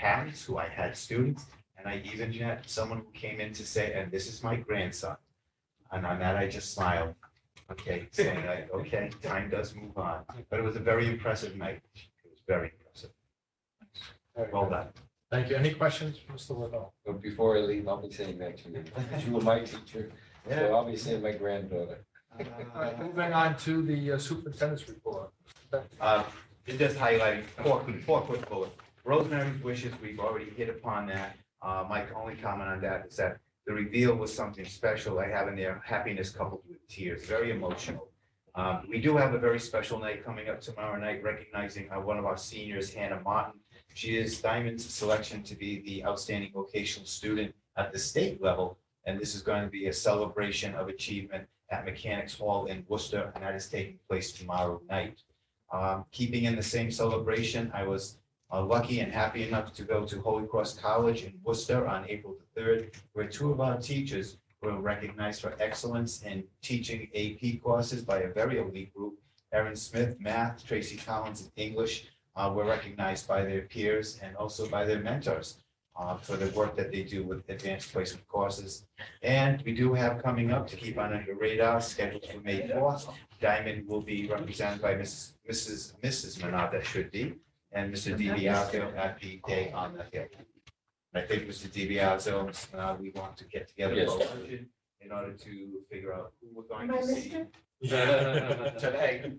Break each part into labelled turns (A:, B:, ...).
A: parents who I had students, and I even had someone who came in to say, and this is my grandson. And on that, I just smiled, okay, saying like, okay, time does move on. But it was a very impressive night. It was very impressive. Well done.
B: Thank you. Any questions, for Mr. Liddell?
C: But before I leave, I'll be saying that to you, 'cause you were my teacher, so I'll be saying my granddaughter.
B: All right, Moving on to the uh, superintendent's report.
A: Uh, it just highlighting four, four quick bullets. Rosemary's wishes, we've already hit upon that. Uh, my only comment on that is that the reveal was something special. I have in there happiness coupled with tears, very emotional. Um, we do have a very special night coming up tomorrow night, recognizing uh, one of our seniors, Hannah Martin. She is Diamond's selection to be the outstanding vocational student at the state level. And this is going to be a celebration of achievement at Mechanics Hall in Worcester, and that is taking place tomorrow night. Um, keeping in the same celebration, I was uh, lucky and happy enough to go to Holy Cross College in Worcester on April the third, where two of our teachers were recognized for excellence in teaching AP courses by a very elite group. Erin Smith, math, Tracy Collins, and English uh, were recognized by their peers and also by their mentors uh, for the work that they do with advanced placement courses. And we do have coming up to keep on under radar, scheduled for May fourth, Diamond will be represented by Mrs. Mrs. Mrs. Menard, that should be, and Mr. DiBiaseo at the day on the hill. I think Mr. DiBiaseo, and Mrs. Menard, we want to get together for luncheon in order to figure out who we're going to see today.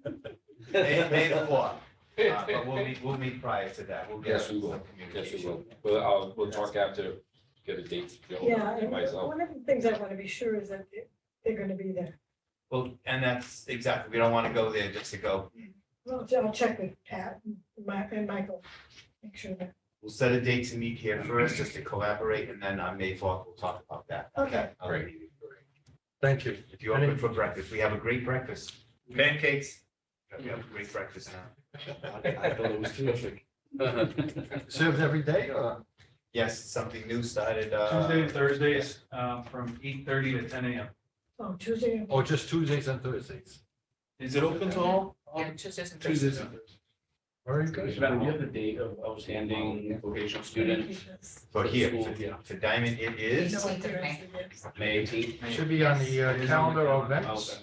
A: May, May the fourth, Uh, but we'll meet, we'll meet prior to that, we'll get
C: Yes, we
A: some
C: will. Yes, we
A: communication.
C: will. Well, I'll, we'll talk after, get a date. Joe,
D: Yeah,
C: and
D: and
C: Myself.
D: one of the things I want to be sure is that they're going to be there.
A: Well, and that's exactly, we don't want to go there just to go,
D: Well, I'll check with Pat and Mi- and Michael, make sure that,
A: we'll set a date to meet here first, just to collaborate, and then on May fourth, we'll talk about that.
D: okay.
A: Great.
B: Thank you.
A: If you open for breakfast, we have a great breakfast. Pancakes. We have a great breakfast now.
E: I thought it was terrific.
B: Served every day or?
A: Yes, something new started, uh.
F: Tuesday and Thursdays, um, from eight thirty to ten AM.
D: Oh, Tuesday,
B: Or just Tuesdays and Thursdays?
F: Is it open to all?
G: Yeah, Tuesdays and
F: Tuesdays.
G: Thursdays.
F: and
B: Very
E: Because
B: good.
E: Madam, do you have the date of outstanding vocational student?
A: For here,
E: School, yeah.
A: for Diamond, it is
G: Eighteenth of May.
E: May eighteenth?
B: Should be on the uh, calendar of events.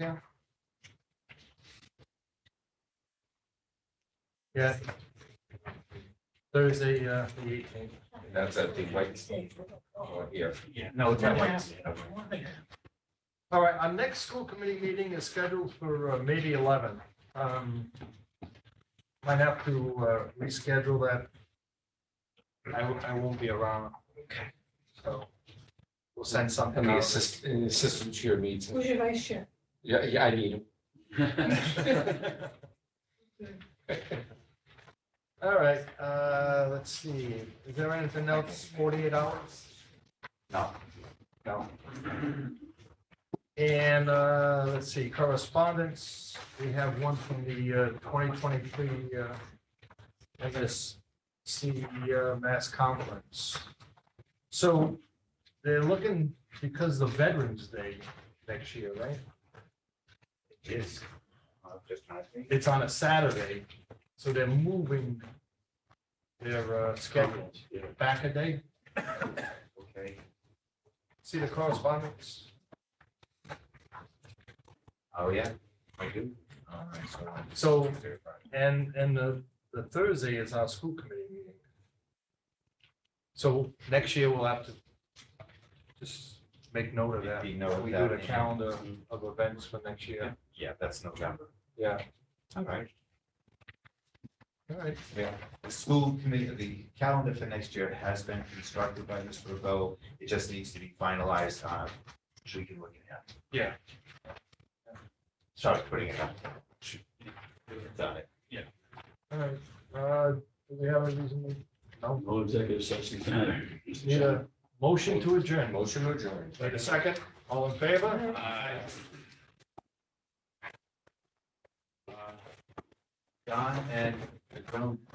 E: Okay.
B: Yeah. Thursday, uh, the eighteenth.
C: That's at the White, uh, here.
A: Yeah, no, it's not like.
B: All right, our next school committee meeting is scheduled for uh, May the eleventh. Might have to uh, reschedule that. I, w- I won't be around.
A: Okay.
B: So we'll send something
C: And the
B: out.
C: assist, and the assistant chair meets.
D: Who's your vice chair?
C: Yeah, yeah, I need
E: Madam
C: him.
B: All right, uh, let's see, is there anything else, forty-eight hours?
A: No.
B: No. And, uh, let's see, correspondence, we have one from the, uh, twenty twenty-three, uh, I guess, C, uh, mass conference. So they're looking, because the Veterans Day next year, right?
A: Yes. Uh, Just not me.
B: It's on a Saturday, so they're moving their, uh, schedule back a day.
A: Okay,
B: See the correspondence?
A: oh, yeah, I do. All right, so I'm-
B: So, and, and the, the Thursday is our school committee meeting. So next year we'll have to just make note of that.
A: Make note of
B: We
A: that.
B: do the calendar of events for next year.
A: Yeah, that's November.
B: Yeah.
A: All right.
B: All right.
A: The school committee, the calendar for next year has been constructed by Mr. Rebo. It just needs to be finalized, uh, so we can look at that.
B: Yeah.
A: Sorry, putting it up. Done it.
B: All right. Uh, do we have a reason? No.
E: No executive session tonight. Mr.
B: Need
E: Chairman.
B: a motion to adjourn.
C: Motion adjourned.
B: Wait a second. All in favor?
F: Uh,
A: Don and